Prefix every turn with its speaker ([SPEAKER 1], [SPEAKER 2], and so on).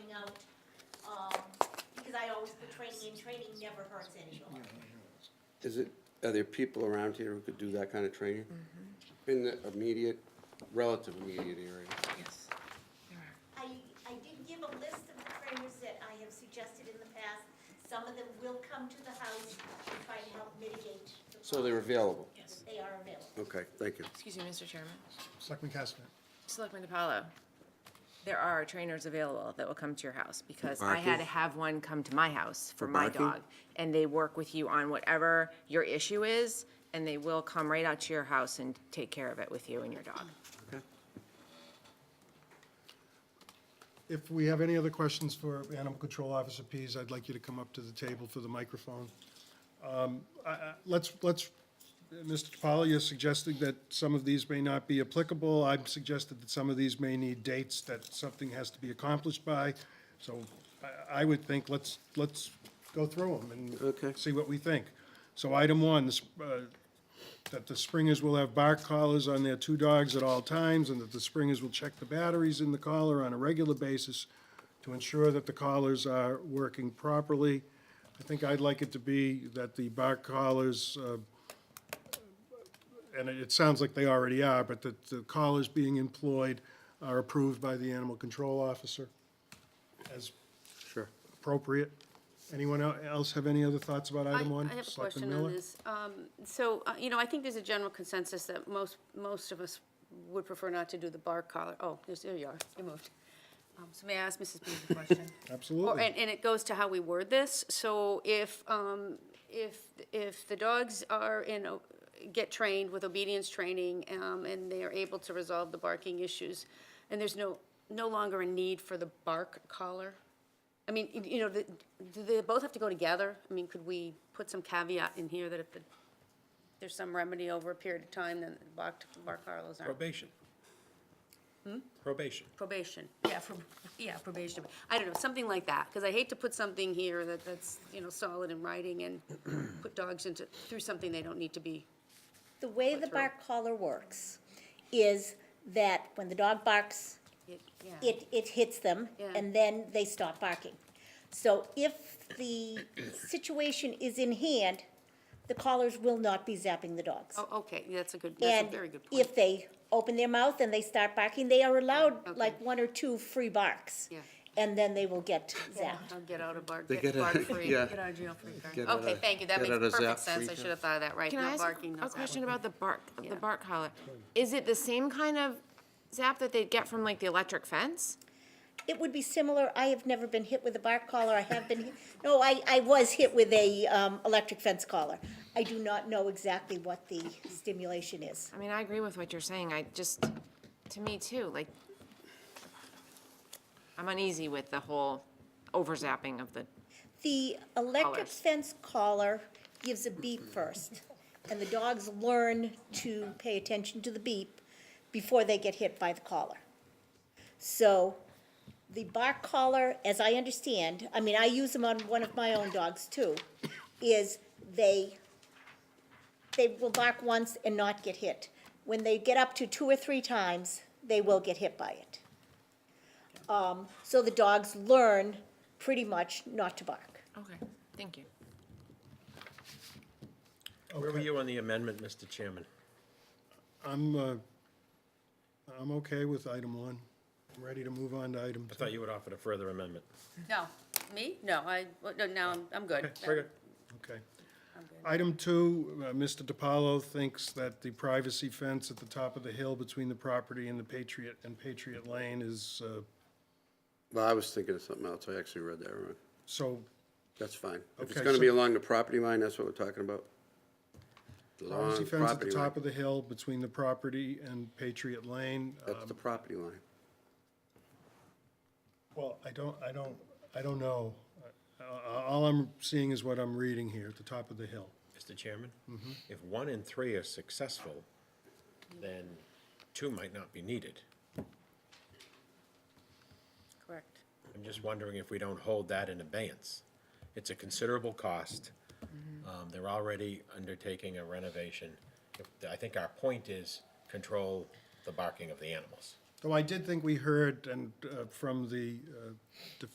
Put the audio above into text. [SPEAKER 1] um, training, and training never hurts anyone.
[SPEAKER 2] Is it, are there people around here who could do that kind of training? In the immediate, relative immediate area?
[SPEAKER 3] Yes, there are.
[SPEAKER 1] I, I did give a list of the trainers that I have suggested in the past. Some of them will come to the house and try to help mitigate the
[SPEAKER 2] So they're available?
[SPEAKER 3] Yes.
[SPEAKER 1] They are available.
[SPEAKER 2] Okay, thank you.
[SPEAKER 3] Excuse me, Mr. Chairman.
[SPEAKER 4] Selectman Kastner.
[SPEAKER 3] Selectman DiPaolo, there are trainers available that will come to your house because I had to
[SPEAKER 2] Barking?
[SPEAKER 3] have one come to my house for my
[SPEAKER 2] barking?
[SPEAKER 3] dog. And they work with you on whatever your issue is, and they will come right out to your house and take care of it with you and your dog.
[SPEAKER 4] If we have any other questions for Animal Control Officer Pease, I'd like you to come up to the table for the microphone. Um, I- I- Let's, let's, Mr. DiPaolo, you're suggesting that some of these may not be applicable. I've suggested that some of these may need dates that something has to be accomplished by. So I- I would think, let's, let's go through them
[SPEAKER 2] Okay.
[SPEAKER 4] and see what we think. So item one, this, uh, that the springers will have bark collars on their two dogs at all times, and that the springers will check the batteries in the collar on a regular basis to ensure that the collars are working properly. I think I'd like it to be that the bark collars, uh, and it, it sounds like they already are, but that the collars being employed are approved by the animal control officer as
[SPEAKER 2] Sure.
[SPEAKER 4] appropriate. Anyone el- else have any other thoughts about
[SPEAKER 5] I-
[SPEAKER 4] item one?
[SPEAKER 5] I have a
[SPEAKER 4] Selectman
[SPEAKER 5] question on
[SPEAKER 4] Miller?
[SPEAKER 5] this. Um, So, uh, you know, I think there's a general consensus that most, most of us would prefer not to do the bar collar. Oh, there's- there you are, you moved. Um, So may I ask Mrs. Booth a question? Or-
[SPEAKER 4] Absolutely.
[SPEAKER 5] And, and it goes to how we word this. So if, um, if, if the dogs are in, o- get trained with obedience training, um, and they are able to resolve the barking issues, and there's no, no longer a need for the bark collar? I mean, you- you know, the- do they both have to go together? I mean, could we put some caveat in here that if the- there's some remedy over a period of time, then the bark, bark collars aren't? Hmm?
[SPEAKER 6] Probation. Probation.
[SPEAKER 5] Probation, yeah, for, yeah, probation, I don't know, something like that, because I hate to put something here that, that's, you know, solid in writing and put dogs into, through something they don't need to be.
[SPEAKER 7] The way the bark collar works is that when the dog barks,
[SPEAKER 5] Yeah,
[SPEAKER 7] it, it hits them,
[SPEAKER 5] Yeah.
[SPEAKER 7] and then they stop barking. So if the situation is in hand, the collars will not be zapping the dogs.
[SPEAKER 5] oh, okay, that's a good, that's a very good
[SPEAKER 7] And
[SPEAKER 5] point.
[SPEAKER 7] if they open their mouth and they start barking, they are allowed
[SPEAKER 5] Okay.
[SPEAKER 7] like one or two free barks.
[SPEAKER 5] Yeah.
[SPEAKER 7] And then they will get zapped.
[SPEAKER 5] I'll get out of bark,
[SPEAKER 2] They get
[SPEAKER 5] get
[SPEAKER 2] out-
[SPEAKER 5] bark free,
[SPEAKER 2] yeah.
[SPEAKER 5] get out of jail free card.
[SPEAKER 2] Get out
[SPEAKER 5] Okay,
[SPEAKER 2] of-
[SPEAKER 5] thank you, that
[SPEAKER 2] get
[SPEAKER 5] makes
[SPEAKER 2] out of zap
[SPEAKER 5] perfect sense, I
[SPEAKER 2] free
[SPEAKER 5] should have thought of that, right,
[SPEAKER 3] Can I
[SPEAKER 5] no
[SPEAKER 3] ask
[SPEAKER 5] barking, no
[SPEAKER 3] a
[SPEAKER 5] zapping.
[SPEAKER 3] question about the bark,
[SPEAKER 5] Yeah.
[SPEAKER 3] the bark collar? Is it the same kind of zap that they'd get from like the electric fence?
[SPEAKER 7] It would be similar, I have never been hit with a bark collar, I have been, hit- no, I, I was hit with a, um, electric fence collar. I do not know exactly what the stimulation is.
[SPEAKER 3] I mean, I agree with what you're saying, I just, to me too, like, I'm uneasy with the whole overzapping of the,
[SPEAKER 7] The electric
[SPEAKER 3] Collars.
[SPEAKER 7] fence collar gives a beep first, and the dogs learn to pay attention to the beep before they get hit by the collar. So the bark collar, as I understand, I mean, I use them on one of my own dogs too, is they, they will bark once and not get hit. When they get up to two or three times, they will get hit by it. Um, so the dogs learn pretty much not to bark.
[SPEAKER 3] okay, thank you.
[SPEAKER 6] Where were you on the amendment, Mr. Chairman?
[SPEAKER 4] I'm, uh, I'm okay with item one. I'm ready to move on to item
[SPEAKER 6] I
[SPEAKER 4] two.
[SPEAKER 6] thought you would offer a further amendment.
[SPEAKER 5] No, me? No, I, well, no, now I'm, I'm good.
[SPEAKER 6] Very good.
[SPEAKER 4] Okay. Item two, uh, Mr. DiPaolo thinks that the privacy fence at the top of the hill between the property and the Patriot, and Patriot Lane is, uh,
[SPEAKER 2] Well, I was thinking of something else. I actually read that wrong.
[SPEAKER 4] so,
[SPEAKER 2] That's fine. If it's
[SPEAKER 4] Okay,
[SPEAKER 2] gonna be
[SPEAKER 4] so-
[SPEAKER 2] along the property line, that's what we're talking about?
[SPEAKER 4] privacy
[SPEAKER 2] Along
[SPEAKER 4] fence at the
[SPEAKER 2] property line.
[SPEAKER 4] top of the hill between the property and Patriot Lane. Uh,
[SPEAKER 2] That's the property line.
[SPEAKER 4] Well, I don't, I don't, I don't know. Uh, All I'm seeing is what I'm reading here at the top of the hill.
[SPEAKER 6] Mr. Chairman? Mm-hmm. If one and three are successful, then two might not be needed.
[SPEAKER 5] Correct.
[SPEAKER 6] I'm just wondering if we don't hold that in abeyance. It's a considerable cost. Um, They're already undertaking a renovation. If- I think our point is control the barking of the animals.
[SPEAKER 4] Though I did think we heard and, uh, from the, uh,